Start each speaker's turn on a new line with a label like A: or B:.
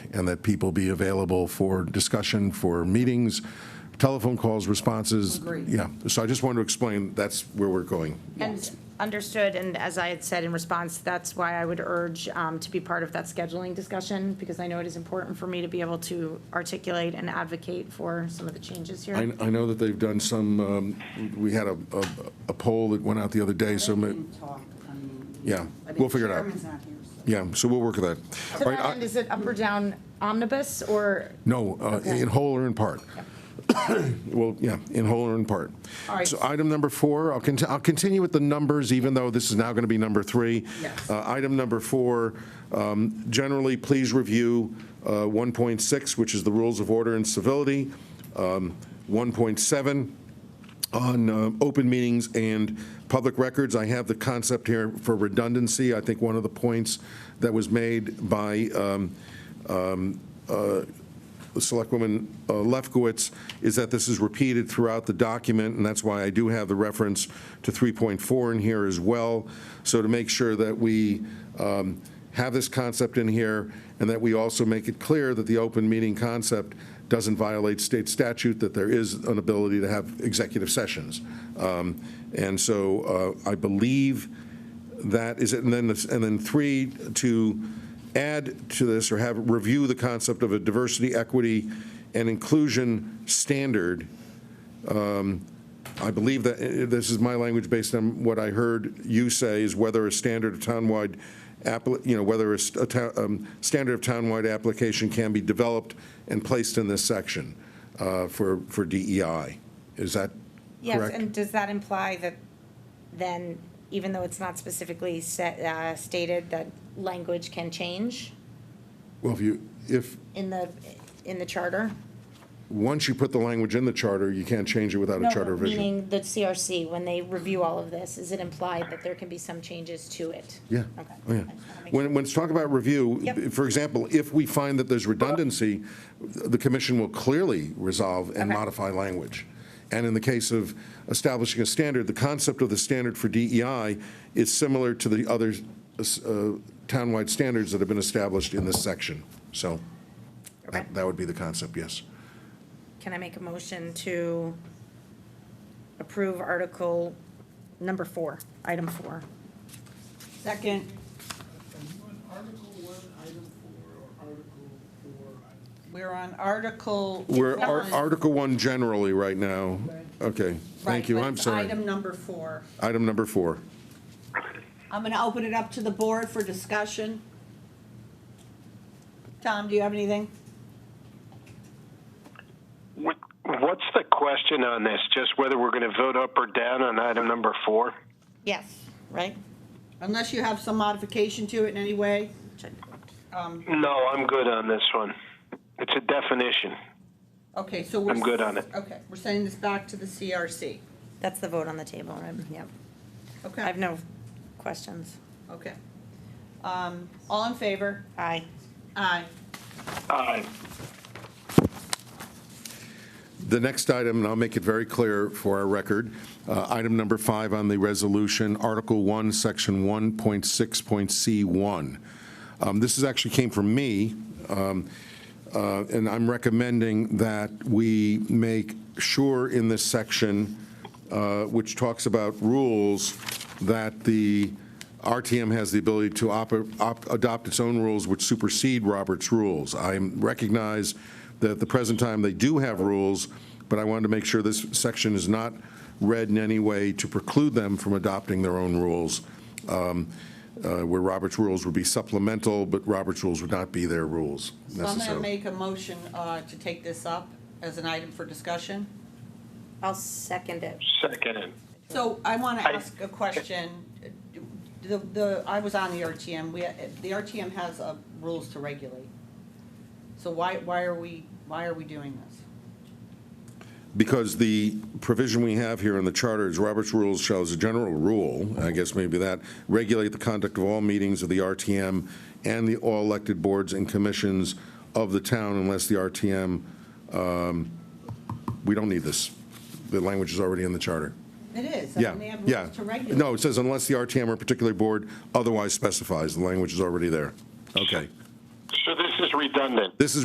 A: and that people be available for discussion, for meetings, telephone calls, responses.
B: Agreed.
A: Yeah, so I just wanted to explain, that's where we're going.
B: And understood, and as I had said in response, that's why I would urge um, to be part of that scheduling discussion, because I know it is important for me to be able to articulate and advocate for some of the changes here.
A: I, I know that they've done some, um, we had a, a- a poll that went out the other day, so, ma-
C: Can talk, I mean,
A: Yeah,
C: I mean,
A: we'll figure it out.
C: Chairman's not here, so-
A: yeah, so we'll work with that.
B: To
A: All right,
B: that
A: I-
B: end, is it up or down omnibus, or,
A: No, uh, in whole or in part. Well, yeah, in whole or in part.
B: All right.
A: So item number four, I'll conti- I'll continue with the numbers, even though this is now going to be number three.
C: Yes.
A: Uh, Item number four, um, generally, please review uh, 1.6, which is the rules of order and civility, um, 1.7, on um, open meetings and public records, I have the concept here for redundancy. I think one of the points that was made by um, um, uh, Selectwoman uh, Lefkowitz is that this is repeated throughout the document, and that's why I do have the reference to 3.4 in here as well. So to make sure that we um, have this concept in here, and that we also make it clear that the open meeting concept doesn't violate state statute, that there is an ability to have executive sessions. Um, And so uh, I believe that is it, and then, this- and then three, to add to this or have, review the concept of a diversity, equity, and inclusion standard. um, I believe that, eh, this is my language based on what I heard you say, is whether a standard of townwide, appli- you know, whether a st- a town- um, standard of townwide application can be developed and placed in this section uh, for, for DEI. Is that
B: yes,
A: correct?
B: and does that imply that then, even though it's not specifically set, uh, stated, that language can change
A: Well, if you, if,
B: in the, in the charter?
A: once you put the language in the charter, you can't change it without a
B: No,
A: charter revision.
B: Meaning the CRC, when they review all of this, is it implied that there can be some changes to it?
A: Yeah.
B: Okay.
A: Oh, yeah.
B: I just wanna make sure.
A: When, when it's talking about review,
B: Yep.
A: for example, if we find that there's redundancy, the commission will clearly resolve and
B: Okay.
A: modify language. And in the case of establishing a standard, the concept of the standard for DEI is similar to the other uh, townwide standards that have been established in this section. So
B: Okay.
A: that that would be the concept, yes.
B: Can I make a motion to approve article number four, item four?
C: Second,
D: Are you on Article One, Item Four, or Article Four, Item?
C: we're on Article.
A: We're
C: one.
A: Ar- Article 1 generally right now. Okay,
C: Right,
A: thank you,
C: but
A: I'm
C: it's
A: sorry.
C: Item number four.
A: Item number four.
C: I'm going to open it up to the board for discussion. Tom, do you have anything?
E: What- What's the question on this? Just whether we're going to vote up or down on item number four?
B: Yes, right?
C: Unless you have some modification to it in any way?
E: No, I'm good on this one. It's a definition.
C: Okay, so we're.
E: I'm good on it.
C: Okay, we're sending this back to the CRC.
B: That's the vote on the table, right? Yep. I have
C: Okay,
B: no questions.
C: okay. Um, All in favor?
B: Aye.
C: Aye.
E: Aye.
A: The next item, and I'll make it very clear for our record, uh, item number five on the resolution, Article 1, Section 1.6.C1. Um, This is actually came from me, um, uh, and I'm recommending that we make sure in this section, uh, which talks about rules, that the RTM has the ability to op- op- adopt its own rules which supersede Robert's rules. I recognize that at the present time, they do have rules, but I wanted to make sure this section is not read in any way to preclude them from adopting their own rules, um, uh, where Robert's rules would be supplemental, but Robert's rules would not be their rules
C: So I'm going to
A: necessarily.
C: make a motion uh, to take this up as an item for discussion.
B: I'll second it.
E: Second. it.
C: So I want to
E: I-
C: ask a question. The, the, I was on the RTM, we, the RTM has uh, rules to regulate. So why, why are we, why are we doing this?
A: Because the provision we have here in the charter is Robert's rules shall, as a general rule, I guess maybe that, regulate the conduct of all meetings of the RTM and the all elected boards and commissions of the town unless the RTM, um, we don't need this. The language is already in the charter.
C: It is, I
A: Yeah,
C: mean, they have
A: yeah.
C: rules to regulate.
A: No, it says unless the RTM or particular board otherwise specifies, the language is already there. Okay.
E: So this is
F: is redundant.
E: This is